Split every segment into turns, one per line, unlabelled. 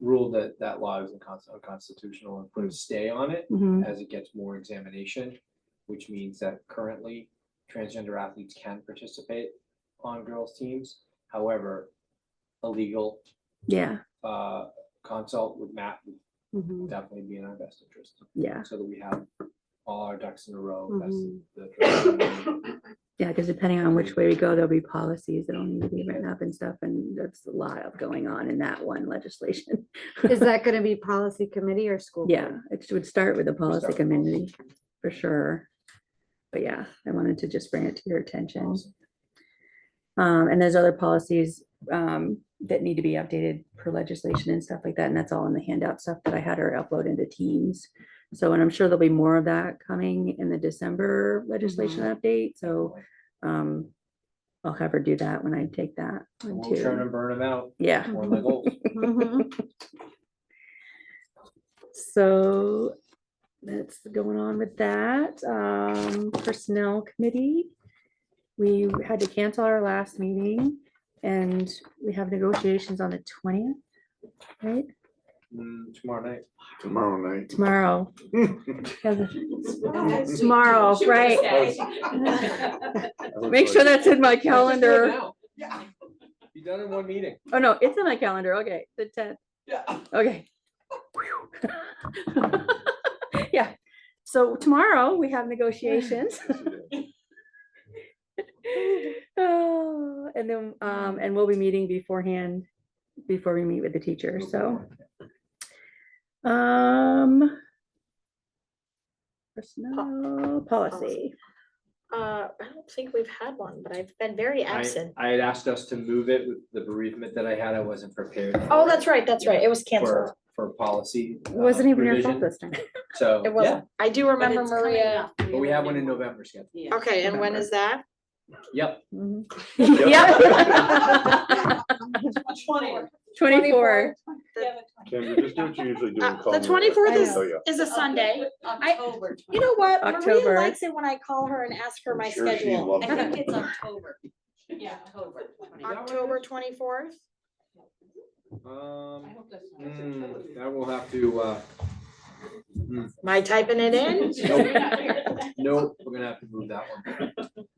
ruled that that law was incons- unconstitutional and put a stay on it
Mhm.
as it gets more examination, which means that currently transgender athletes can participate on girls' teams. However, a legal
Yeah.
uh, consult with Matt would
Mhm.
definitely be in our best interest,
Yeah.
so that we have all our ducks in a row. as
Mhm.
the trustees.
Yeah. Because depending on which way we go, there'll be policies that'll need to be written up and stuff. And that's a lot of going on in that one legislation.
Is that gonna be policy committee or school?
Yeah.
board?
It would start with the policy
with policy.
committee for sure. But yeah, I wanted to just bring it to your attention.
Awesome.
Um, and there's other policies, um, that need to be updated per legislation and stuff like that, and that's all in the handout stuff that I had her upload into Teams. So, and I'm sure there'll be more of that coming in the December legislation update, so, um, I'll have her do that when I take that
And
one
We'll churn
too.
and burn them out.
Yeah,
One of my goals.
Mhm.
so that's going on with that. Um, Personnel Committee. We had to cancel our last meeting and we have negotiations on the twentieth, right?
Mm, Tomorrow night.
Tomorrow night.
Tomorrow. oh,
Tomorrow, right?
Uh, Make sure that's in my calendar.
You done in one meeting.
Oh, no, it's in my calendar. Okay, the tenth.
Yeah.
Okay. Yeah, so tomorrow we have negotiations. Oh, And then, um, and we'll be meeting beforehand, before we meet with the teacher, so. Um. Personnel policy.
Uh, I don't think we've had one, but I've been very
I,
absent.
I had asked us to move it with the bereavement that I had. I wasn't prepared.
Oh,
for-
that's right, that's right. It was canceled.
For, for policy. uh,
Wasn't even your fault
revision.
this time.
So,
It
yeah,
wasn't. I do remember
it's coming
Maria.
up.
but we have one in November scheduled.
Yeah.
Okay, and when
November.
is that?
Yep.
Mm-hmm. Yeah. Twenty-four.
Can we just do what you usually do? and
Uh,
call
the
me?
24th
is-
Oh, yeah.
Is a Sunday.
October.
You know what?
October.
Maria likes it when I call her and ask her
I'm
my
sure she
schedule.
loves
I think it's October. Yeah, October.
October twenty-fourth?
Um, mm, I will have to, uh, hmm,
Am I typing it in?
no, we're gonna have to move that one.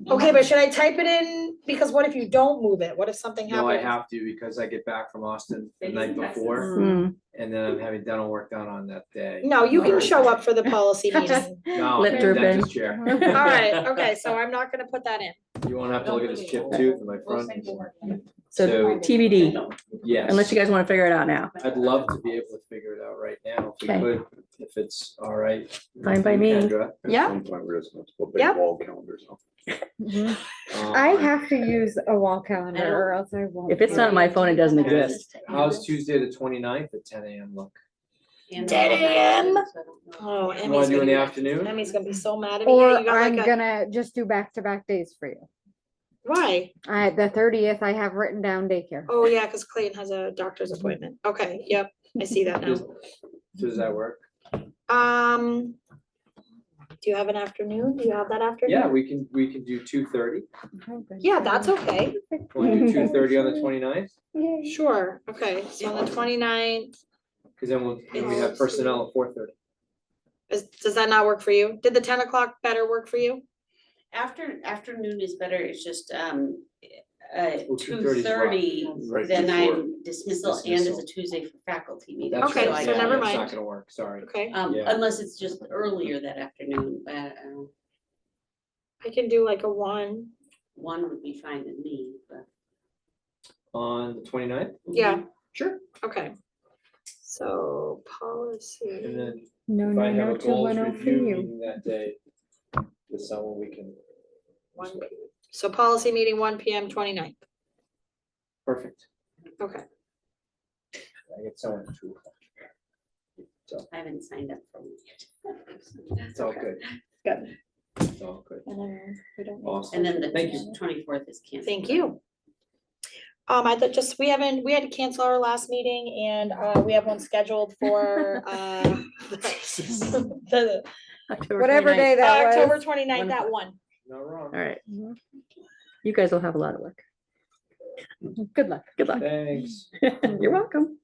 Okay, but should I type it in? Because what if you don't move it? What if something
No, I
happens?
have to because I get back from Austin the
They
night
use Texas.
before
Hmm.
and then I'm having dental work done on that day.
No, you can
Thursday.
show up for the policy meeting.
No,
Lip
the
dripping.
dentist chair.
All
All right, okay, so I'm not gonna put that in.
You won't have to look at this chipped tooth in my front.
So
So-
TBD,
Yes.
unless you guys want to figure it out now.
I'd love to be able to figure it out right now, if we
Okay.
could, if it's all right.
Fine by
with
me.
Kendra.
At
Yeah.
some point, we're just gonna have to put
Yeah.
big wall calendars up.
Mm-hmm. I
Um,
have to use a wall calendar or else I won't.
If it's not on my phone, it doesn't exist.
How's Tuesday the 29th at ten AM look?
Damn. Oh,
You wanna
Emmy's
do in the
gonna,
afternoon?
Emmy's gonna be so mad at me. Yeah, you
Or
got
I'm
like a-
gonna just do back-to-back days for you.
Why?
I, the thirtieth, I have written down daycare.
Oh, yeah, because Clayton has a doctor's appointment. Okay, yep, I see that now.
Does does that work?
Um, do you have an afternoon? Do you have that afternoon?
Yeah, we can, we can do two thirty.
Yeah, that's okay.
Wanna do two thirty on the 29th?
Yay.
Sure, okay. So on the 29th,
Cause then we'll, then we have personnel at four thirty.
is, does that not work for you? Did the ten o'clock better work for you?
After, afternoon is better, it's just, um, uh,
Oh,
two
2:30 's rough.
thirty,
Right
then
before.
I'm dismissal and it's
Dismissal.
a Tuesday for faculty meeting.
That's
Okay,
right,
so
yeah,
never
That's not
mind.
gonna work, sorry.
Okay,
Um,
Yeah.
unless it's just earlier that afternoon, but, uh,
I can do like a one.
one would be fine with me, but.
On the 29th.
Yeah.
Sure.
Okay. So
And
policy.
then
No,
If I
no,
have
no,
a
two, one,
goals
oh, for
review
you.
meeting that day, with someone we can.
One. So policy meeting one P M 29th.
Perfect.
Okay.
I get someone at two o'clock. So,
I haven't signed up for it
it's all good.
Good.
It's all good. Awesome.
And then
Thank
the
you.
twenty-fourth is canceled.
Thank you. Um, I thought just, we haven't, we had to cancel our last meeting and, uh, we have one scheduled for, uh, the,
October
Whatever
29th.
day that
October
was.
29th
One
at one.
Not wrong.
All right,
Mhm.
you guys will have a lot of work.
Good luck.
Good luck.
Thanks.
You're welcome.